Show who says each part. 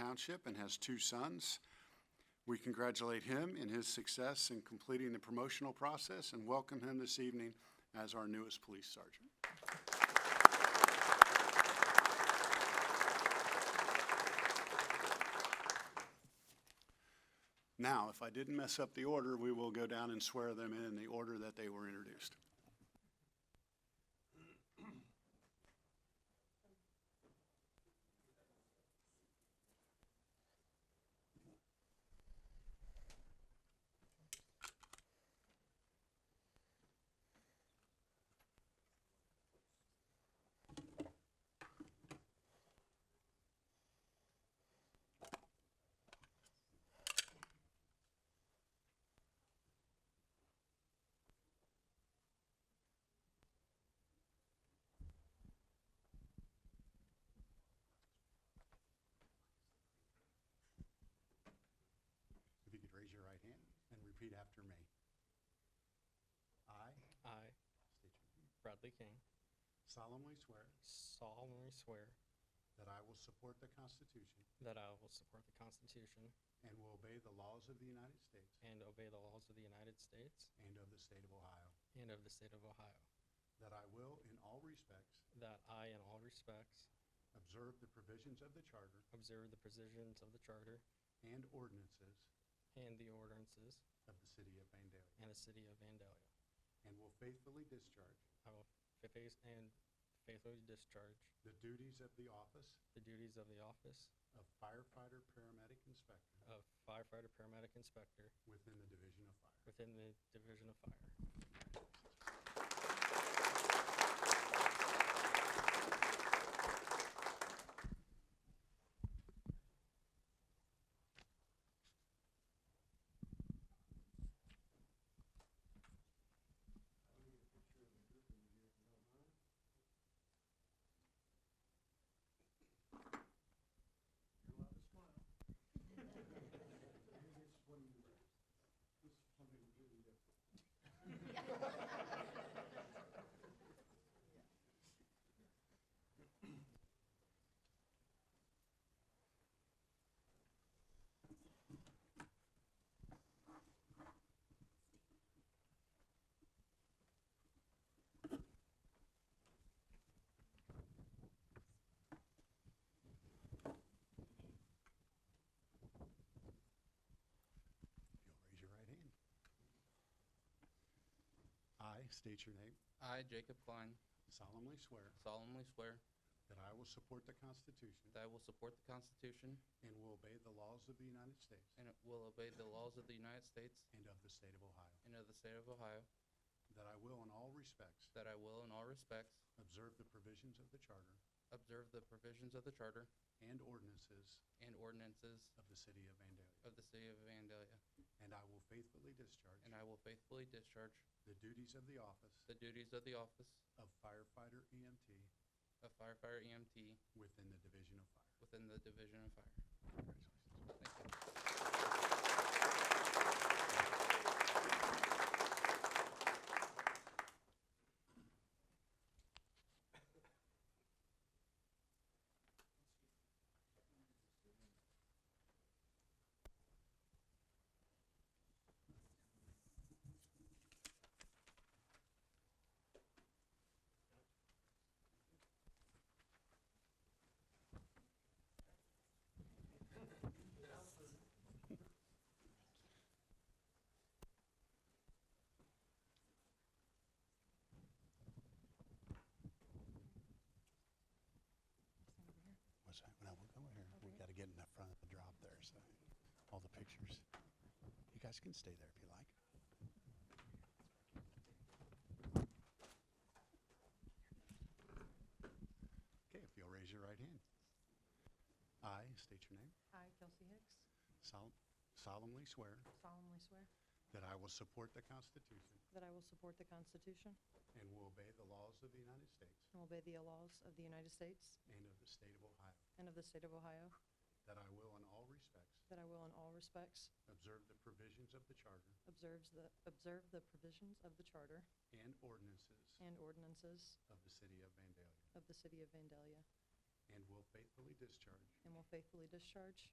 Speaker 1: Township and has two sons. We congratulate him in his success in completing the promotional process and welcome him this evening as our newest police sergeant. Now, if I didn't mess up the order, we will go down and swear them in in the order that they were introduced. If you could raise your right hand and repeat after me. I
Speaker 2: I,
Speaker 1: state your name,
Speaker 2: Bradley King,
Speaker 1: solemnly swear
Speaker 2: solemnly swear
Speaker 1: that I will support the Constitution
Speaker 2: that I will support the Constitution
Speaker 1: and will obey the laws of the United States
Speaker 2: and obey the laws of the United States
Speaker 1: and of the state of Ohio,
Speaker 2: and of the state of Ohio,
Speaker 1: that I will, in all respects,
Speaker 2: that I, in all respects,
Speaker 1: observe the provisions of the Charter
Speaker 2: observe the provisions of the Charter
Speaker 1: and ordinances
Speaker 2: and the ordinances
Speaker 1: of the city of Vandalia,
Speaker 2: and the city of Vandalia.
Speaker 1: and will faithfully discharge
Speaker 2: I will faith and faithfully discharge
Speaker 1: the duties of the office
Speaker 2: the duties of the office
Speaker 1: of firefighter, paramedic, inspector
Speaker 2: of firefighter paramedic inspector
Speaker 1: within the Division of Fire.
Speaker 2: within the Division of Fire.
Speaker 1: You'll raise your right hand. I state your name,
Speaker 3: I, Jacob Klein,
Speaker 1: solemnly swear
Speaker 3: solemnly swear
Speaker 1: that I will support the Constitution
Speaker 3: that I will support the Constitution
Speaker 1: and will obey the laws of the United States
Speaker 3: and will obey the laws of the United States
Speaker 1: and of the state of Ohio,
Speaker 3: and of the state of Ohio,
Speaker 1: that I will in all respects
Speaker 3: that I will in all respects
Speaker 1: observe the provisions of the Charter
Speaker 3: observe the provisions of the Charter
Speaker 1: and ordinances
Speaker 3: and ordinances
Speaker 1: of the city of Vandalia,
Speaker 3: of the city of Vandalia,
Speaker 1: and I will faithfully discharge
Speaker 3: and I will faithfully discharge
Speaker 1: the duties of the office
Speaker 3: the duties of the office
Speaker 1: of firefighter EMT
Speaker 3: of firefighter EMT
Speaker 1: within the Division of Fire.
Speaker 3: within the Division of Fire.
Speaker 1: Congratulations.
Speaker 3: Thank you.
Speaker 1: What's that? No, we'll go here. We gotta get in the front of the drop there, so, all the pictures. You guys can stay there if you like. Okay, if you'll raise your right hand. I state your name,
Speaker 4: I, Kelsey Hicks,
Speaker 1: sol- solemnly swear
Speaker 4: solemnly swear
Speaker 1: that I will support the Constitution
Speaker 4: that I will support the Constitution
Speaker 1: and will obey the laws of the United States
Speaker 4: and obey the laws of the United States
Speaker 1: and of the state of Ohio,
Speaker 4: and of the state of Ohio,
Speaker 1: that I will in all respects
Speaker 4: that I will in all respects
Speaker 1: observe the provisions of the Charter
Speaker 4: observes the, observe the provisions of the Charter
Speaker 1: and ordinances
Speaker 4: and ordinances
Speaker 1: of the city of Vandalia,
Speaker 4: of the city of Vandalia,
Speaker 1: and will faithfully discharge
Speaker 4: and will faithfully discharge